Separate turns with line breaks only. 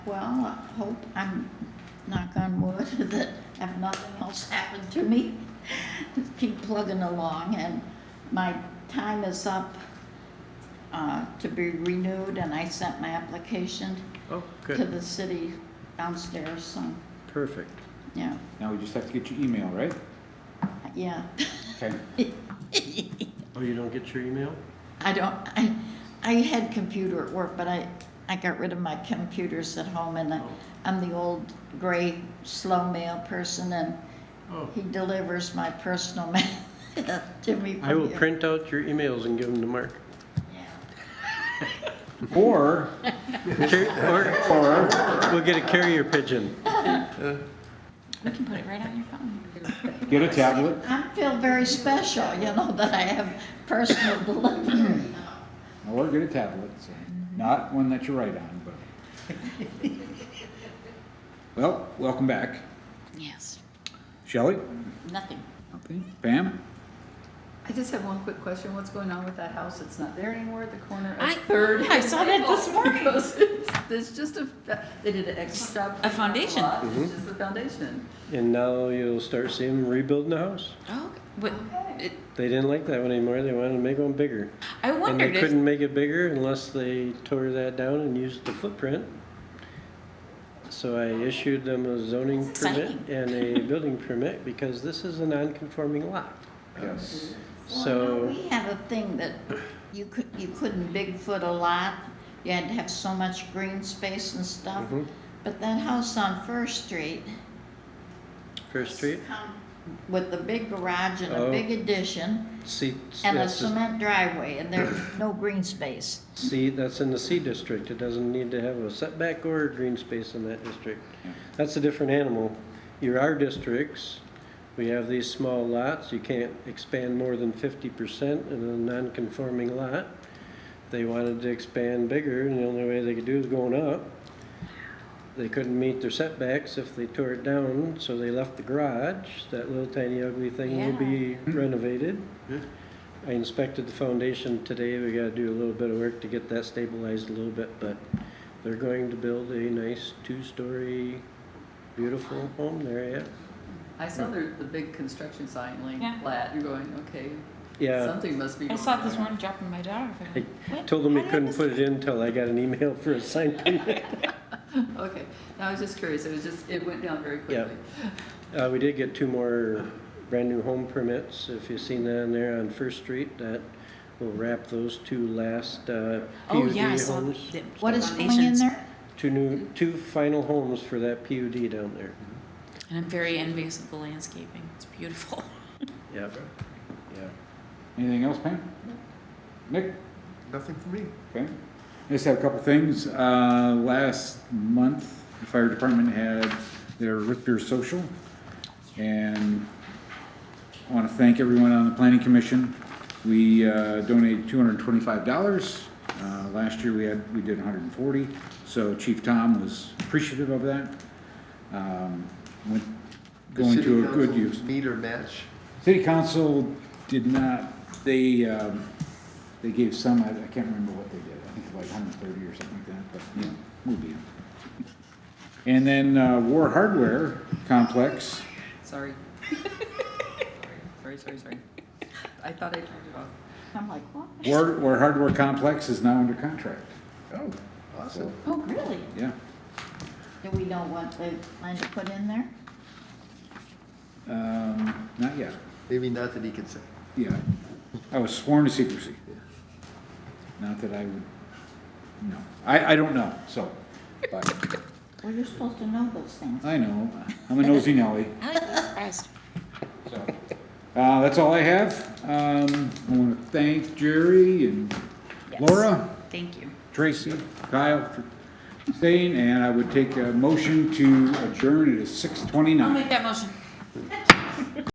Well, I hope I'm, knock on wood, that if nothing else happened to me, just keep plugging along and my time is up uh, to be renewed and I sent my application
Oh,
to
good,
the city downstairs, so,
perfect.
yeah,
Now we just have to get your email, right?
yeah.
Okay.
Oh, you don't get your email?
I don't, I, I had computer at work, but I, I got rid of my computers at home and I,
Oh.
I'm the old gray slow mail person and
Oh,
he delivers my personal mail to me.
I will
from here.
print out your emails and give them to Mark.
Or,
Car-
or,
Or we'll get a carrier pigeon.
You can put it right on your phone.
get a tablet.
I feel very special, you know, that I have personal delivery.
Or get a tablet, so not one that you write on, but. Well, welcome back.
Yes.
Shelley?
Nothing.
Nothing. Pam?
I just have one quick question. What's going on with that house? It's not there anymore at the corner
I-
of Third.
I saw that this morning.
There's just a, they did an extra.
A foundation.
lot. It's
Mm-hmm.
just the foundation.
And now you'll start seeing them rebuilding the house.
Oh, but it,
They didn't like that one anymore, they wanted to make one bigger.
I
And they
wondered if
couldn't make it bigger unless they tore that down and used the footprint. So I issued them a zoning
That's
permit
exciting.
and a building permit because this is a non-conforming lot.
Yes.
Well,
So,
We have a thing that you could, you couldn't Bigfoot a lot. You had to have so much green space and stuff.
Mhm.
But that house on First Street,
First Street,
with the big garage and a
Oh.
big addition
C,
and a
that's the-
cement driveway and there's no green space.
C, that's in the C district, it doesn't need to have a setback or a green space in that district.
Yeah.
That's a different animal. You're our districts, we have these small lots, you can't expand more than fifty percent in a non-conforming lot. They wanted to expand bigger, and the only way they could do is going up. They couldn't meet their setbacks if they tore it down, so they left the garage, that little tiny ugly thing will be renovated. I inspected the foundation today, we gotta do a little bit of work to get that stabilized a little bit, but they're going to build a nice two-story, beautiful home there,
I saw the, the big construction sign
Yeah.
laying flat. You're going, okay,
yeah.
something must be.
I
going
saw
on.
it this morning dropping my daughter. I
Yeah,
went,
I
"What?
told them we
How did
couldn't
this
put it in till I got an email for a sign permit.
Okay. No, I was just curious. It was just, it went down very
Yeah.
quickly.
Uh, we did get two more brand-new home permits, if you've seen that on there on First Street, that will wrap those two last, uh,
Oh, yeah, I
PUD
saw the,
homes.
the
What is going in
foundations.
there?
Two new, two final homes for that PUD down there.
And I'm very envious of the landscaping. It's beautiful.
Yep, yeah.
Anything else, Pam? Nick?
Nothing for me.
Okay. I just have a couple things. Uh, last month, the fire department had their root beer social. And I want to thank everyone on the planning commission. We uh, donated two hundred and twenty-five dollars. Uh, last year we had, we did $140. so Chief Tom was appreciative of that. Um, went, going to a good use.
Meter match.
City council did not, they, um, they gave some, I I can't remember what they did, I think it was like hundred and thirty or something like that, but, you know, we'll beat 'em. And then, uh, War Hardware Complex,
Sorry. Sorry, sorry, sorry. I thought I turned it off.
I'm like, what?
War, War Hardware Complex is now under contract,
Oh, awesome.
Oh, really?
yeah.
Do we know what they plan to put in there?
Um, not yet,
Maybe not that he can say.
yeah, I was sworn to secrecy. Not that I would, no, I, I don't know, so, but,
Well, you're supposed to know those things.
I know, I'm a nosy Nelly.
I was surprised.
So, Uh, that's all I have. Um, I want to thank Jerry and Laura,
Thank you.
Tracy, Kyle for staying, and I would take a motion to adjourn. It is six
I'll
twenty-nine.
make that motion.